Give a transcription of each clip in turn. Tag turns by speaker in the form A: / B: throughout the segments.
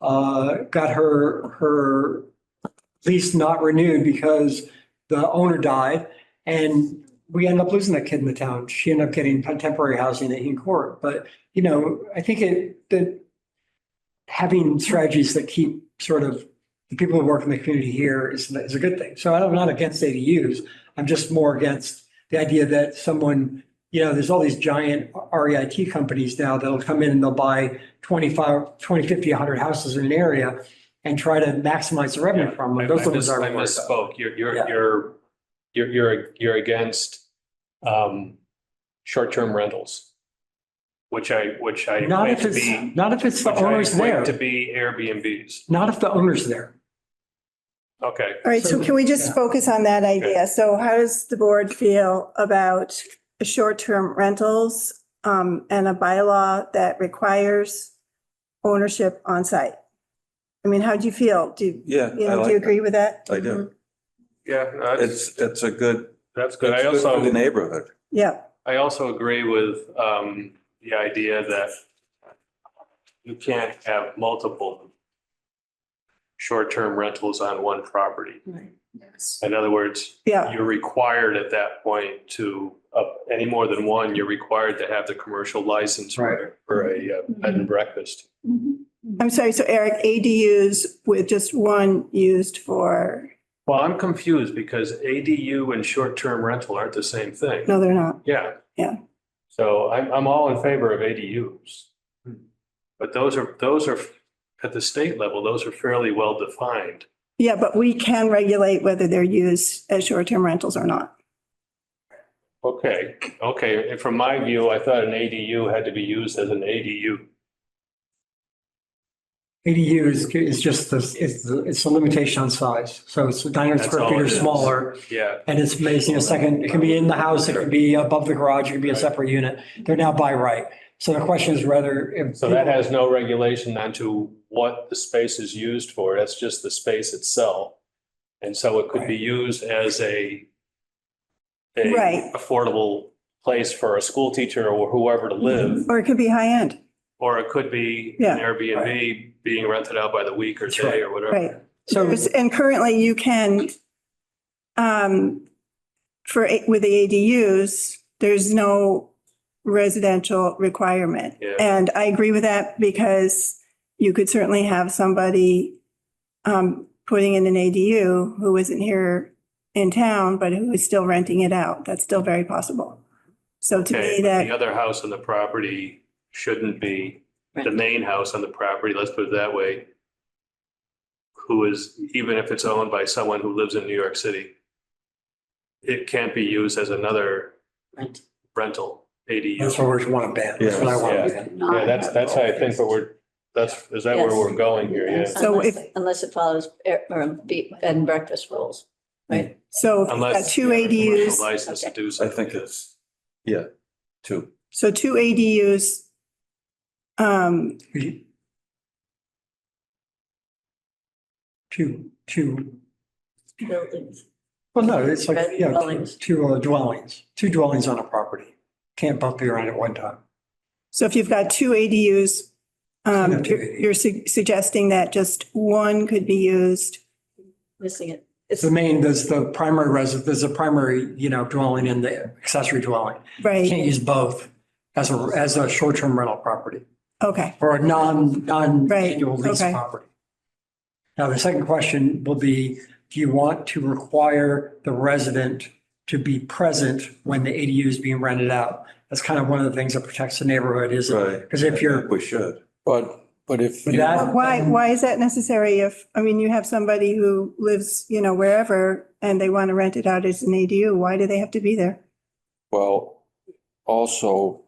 A: uh, got her, her lease not renewed because the owner died. And we ended up losing that kid in the town. She ended up getting temporary housing in court. But, you know, I think it, that having strategies that keep sort of the people who work in the community here is, is a good thing. So I'm not against ADUs. I'm just more against the idea that someone, you know, there's all these giant REIT companies now that'll come in and they'll buy 25, 20, 50, 100 houses in an area and try to maximize the revenue from
B: I I
A: them. Those are the ones
B: mis-
A: I'm
B: I
A: worried about.
B: misspoke. You're,
A: Yeah.
B: you're, you're, you're, you're, you're against, um, short-term rentals, which I, which I
A: Not
B: equate
A: if
B: to
A: it's,
B: be,
A: not if it's
B: which
A: the
B: I
A: owner's
B: equate to
A: there,
B: be Airbnbs.
A: not if the owner's there.
B: Okay.
C: All right, so can we just
A: Yeah.
C: focus on that idea? So how does the board feel about short-term rentals um, and a bylaw that requires ownership on site? I mean, how do you feel? Do, you
D: Yeah, I
C: know, do you
D: like, that.
C: agree with that?
D: I do.
B: Yeah, that's,
D: It's, it's a good,
B: that's good. I
D: it's good
B: also.
D: for the neighborhood.
C: Yeah,
B: I also agree with um the idea that you can't have multiple short-term rentals on one property. In other words,
C: yeah,
B: you're required at that point to, uh, any more than one, you're required to have the commercial license for for a uh, bed
C: Mm-hmm.
B: and breakfast.
C: I'm sorry, so Eric, ADUs with just one used for,
B: Well, I'm confused because ADU and short-term rental aren't the same thing.
C: no, they're not.
B: Yeah.
C: Yeah.
B: So I'm, I'm all in favor of ADUs. Hmm. But those are, those are, at the state level, those are fairly well defined.
C: Yeah, but we can regulate whether they're used as short-term rentals or not.
B: Okay, okay. And from my view, I thought an ADU had to be used as an ADU.
A: ADU is, is just, the it's, the- it's a limitation on size. So it's 900
B: That's
A: square
B: all
A: feet
B: it
A: or
B: is.
A: smaller.
B: Yeah.
A: And it's amazing, a second, it can be in the house, it can be above the garage, it can be a
B: Right.
A: separate unit. They're now by right. So the question is whether. if-
B: So that has no regulation onto what the space is used for. That's just the space itself. And so it could be used as a a
C: Right.
B: affordable place for a school teacher or whoever to live.
C: Or it could be high-end,
B: Or it could be
C: Mm-hmm. Yeah.
B: an Airbnb being rented out by the week or
A: That's right.
B: day or whatever.
C: right?
A: So,
C: There's- And currently you can, um, for, a- with the ADUs, there's no residential requirement.
B: Yeah.
C: And I agree with that because you could certainly have somebody, um, putting in an ADU who isn't here in town, but who is still renting it out. That's still very possible. So to
B: Okay, but
C: me,
B: the
C: that,
B: other house on the property shouldn't be the main house on the property, let's put it that way. Who is, even if it's owned by someone who lives in New York City. It can't be used as another
A: Rent.
B: rental
A: that's
B: ADU.
A: what we want to ban. That's what I want to
B: Yes,
A: ban.
B: Yeah, that's, that's how I think, but we're, that's, is that where
E: Yes.
B: we're going here, yeah?
C: So
E: Unless-
C: if-
E: Unless it follows air- or be- bed and breakfast rules.
C: so if you've got
B: Unless.
C: two
B: you have a commercial
C: ADUs.
B: License to do
D: I
B: something.
D: think it's, yeah, two.
C: So two ADUs. Um,
A: We- Two, two,
E: buildings.
A: well, no, it's like,
E: Red
A: yeah, two-
E: dwellings.
A: two uh, dwellings, two dwellings on a property. Can't both be around at one time.
C: so if you've got two ADUs,
A: Yeah,
C: um,
A: two
C: you're, you're su- suggesting that just one could be used.
E: Missing it.
A: It's the main, there's the primary residence, there's a primary, you know, dwelling and the accessory dwelling. You
C: Right,
A: Can't use both as a, as a short-term rental property.
C: okay,
A: for a non,
C: Right,
A: non-annual lease
C: okay.
A: property. Now, the second question will be, do you want to require the resident to be present when the ADU is being rented out? That's kind of one of the things that protects the neighborhood is,
D: Right.
A: because if you're,
D: We should.
F: But, but if,
A: But
F: you-
A: that-
C: But why, why is that necessary if, I mean, you have somebody who lives, you know, wherever and they want to rent it out as an ADU, why do they have to be there?
F: well, also,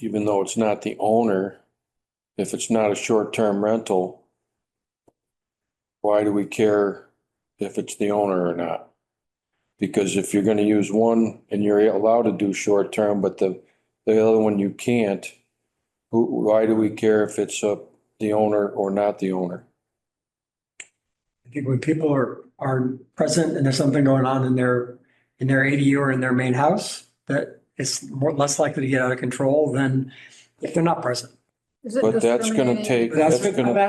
F: even though it's not the owner, if it's not a short-term rental, why do we care if it's the owner or not? Because if you're gonna use one and you're allowed to do short-term, but the, the other one you can't, who, why do we care if it's uh, the owner or not the owner?
A: I think when people are, are present and there's something going on in their, in their ADU or in their main house, that it's more, less likely to get out of control than if they're not present.
F: But that's gonna take,
A: That's
F: that's
A: what
F: gonna
A: I'm